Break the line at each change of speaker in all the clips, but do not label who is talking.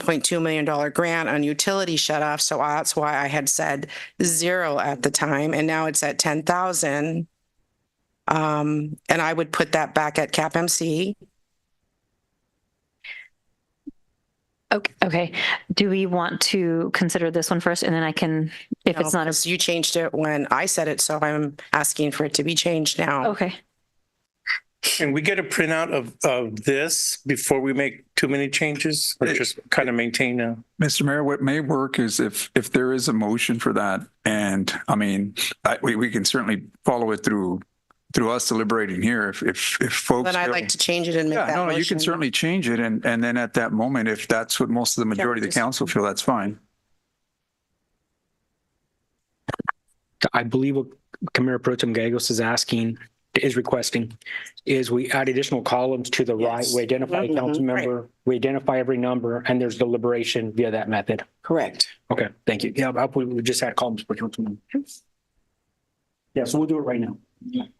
$1.2 million grant on utility shut off. So that's why I had said zero at the time, and now it's at 10,000. Um, and I would put that back at cap MC.
Okay, okay. Do we want to consider this one first and then I can, if it's not, a
You changed it when I said it, so I'm asking for it to be changed now.
okay.
Can we get a printout of, of this before we make too many changes or just kind of maintain a?
Mr. Mayor, what may work is if, if there is a motion for that, and I mean, I, we, we can certainly follow it through, through us deliberating here if, if, if folks.
Then I'd like to change it and make
Yeah,
that
no, you
motion.
can certainly change it, and, and then at that moment, if that's what most of the majority of the
just-
council feel, that's fine.
I believe what Camara Pro Tem Gagos is asking, is requesting, is we add additional columns to the right.
Yes.
We identify a
Mhm,
council
right.
member, we identify every number, and there's deliberation via that method.
Correct.
Okay, thank you. Yeah, I- we we just had columns for council members. Yeah, so we'll do it right now.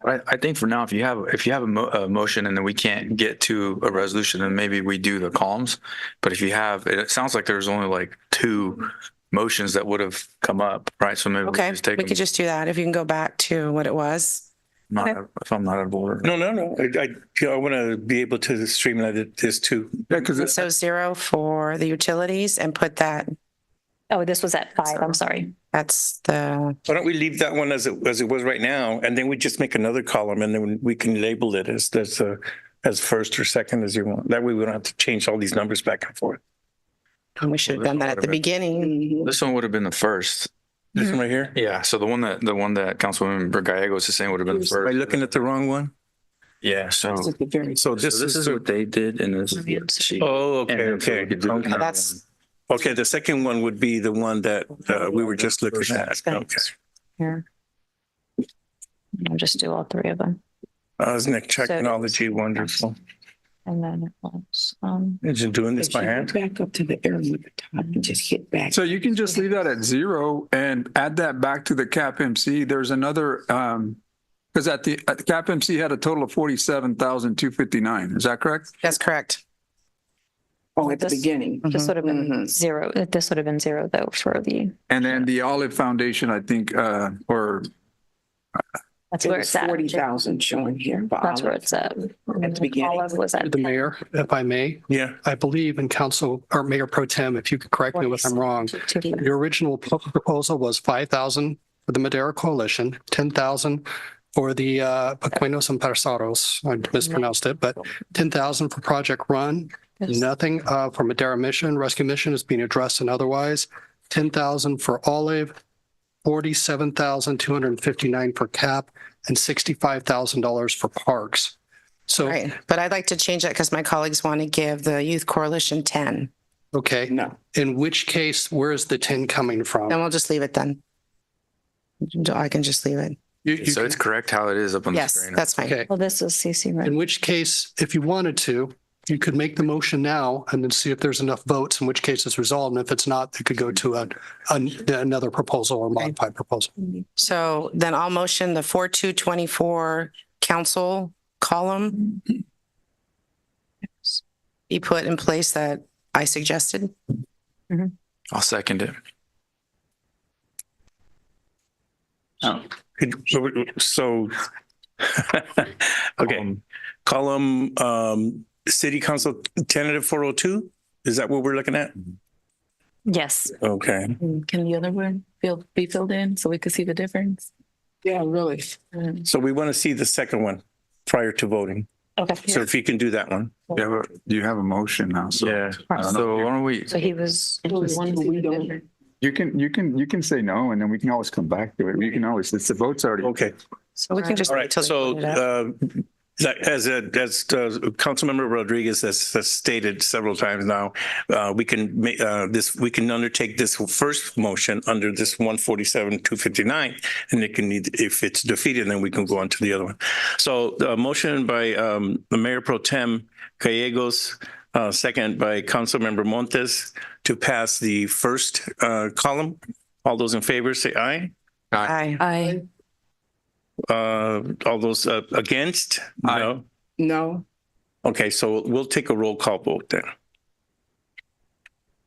I, I think for now, if you have, if you have a mo- a motion and then we can't get to a resolution, then maybe we do the columns. But if you have, it sounds like there's only like two motions that would have come up, right? So maybe we
Okay,
just take
we could
them,
just do that if you can go back to what it was.
not- if I'm not out of order.
No, no, no. I, I, you know, I want to be able to streamline it- this too.
Yeah, because
So zero for the utilities and put that,
Oh, this was at five, I'm sorry.
that's the,
Why don't we leave that one as it, as it was right now? And then we just make another column and then we can label it as, as, uh, as first or second as you want. That way we don't have to change all these numbers back and forth.
we should have
Well,
done that at the
there's
beginning.
This one would have been the first.
This one right here?
Yeah, so the one that, the one that Councilmember Gallegos is saying would have been the
Am I
first.
looking at the wrong one?
Yeah, so.
So
So
this is,
what they did and this
Mm-hmm.
is what she.
oh,
And
okay,
then so
okay.
we could do
Okay.
another
That's-
one.
Okay, the second one would be the one that uh, we were just looking at. Okay.
I'll just do all three of them.
Osnick
So-
Uh, technology, wonderful.
And then it was, um,
Imagine doing this
If you
by
go
hand.
Back up to the area at the top and just hit back.
So you can just leave that at zero and add that back to the cap MC. There's another, um, because at the, at the cap MC had a total of forty-seven thousand, two fifty-nine. Is that correct?
That's correct.
Oh, at the
This-
beginning.
this would have been
Mhm.
zero, this would have been zero though for the,
And then the Olive Foundation, I think, uh, or
that's
It
where
was
it's at.
forty thousand showing here. but
That's where
I'll-
it's at.
At the beginning.
Olive was at.
The mayor, if I may,
Yeah,
I believe in council or mayor pro tem, if you could correct me if I'm wrong.
Two- two- two.
Your original pro- proposal was five thousand for the Madera Coalition, ten thousand for the uh, Pequeños Empresarios. I mispronounced it, but ten thousand for Project Run. Nothing uh, for Madera Mission, Rescue Mission is being addressed and otherwise. Ten thousand for Olive, forty-seven thousand two hundred and fifty-nine for CAP, and sixty-five thousand dollars for Parks. So,
Right. But I'd like to change that because my colleagues want to give the Youth Coalition 10.
okay.
No,
In which case, where is the 10 coming
Then
from?
we'll just leave it then. I can just leave it.
you, you
So
can
it's correct how it is up on the
Yes,
screen.
that's fine.
Okay.
Well, this is CC, right?
In which case, if you wanted to, you could make the motion now and then see if there's enough votes, in which case it's resolved. And if it's not, it could go to a, an- another proposal or modified proposal.
So then I'll motion the 4224 council column be put in place that I suggested.
I'll second it.
Could- so- so. Okay,
Um,
column, um, city council tentative four oh two? Is that what we're looking at?
Yes,
Okay,
Mm-hmm. Can the other one fill, be filled in so we could see the difference?
yeah, really.
so we want to see the second one prior to voting. So
okay.
if you can do that one.
You have a, you have a motion now, so.
Yeah,
I don't know.
so why don't we,
So he was,
We don't-
You can, you can, you can say no, and then we can always come back to it. You can always, it's the vote's already.
Okay,
So we can just.
all
wait till
right.
they
So,
put it up.
uh, that- as, a- as, uh, Councilmember Rodriguez has, has stated several times now, uh, we can make, uh, this, we can undertake this first motion under this one forty-seven, two fifty-nine. And it can need, if it's defeated, then we can go on to the other one. So the motion by, um, the Mayor Pro Tem Gallegos, uh, second by Councilmember Montes to pass the first, uh, column. All those in favor, say aye.
Aye.
I,
Uh, all those, uh, against?
Aye.
No?
No,
Okay, so we'll take a roll call vote then.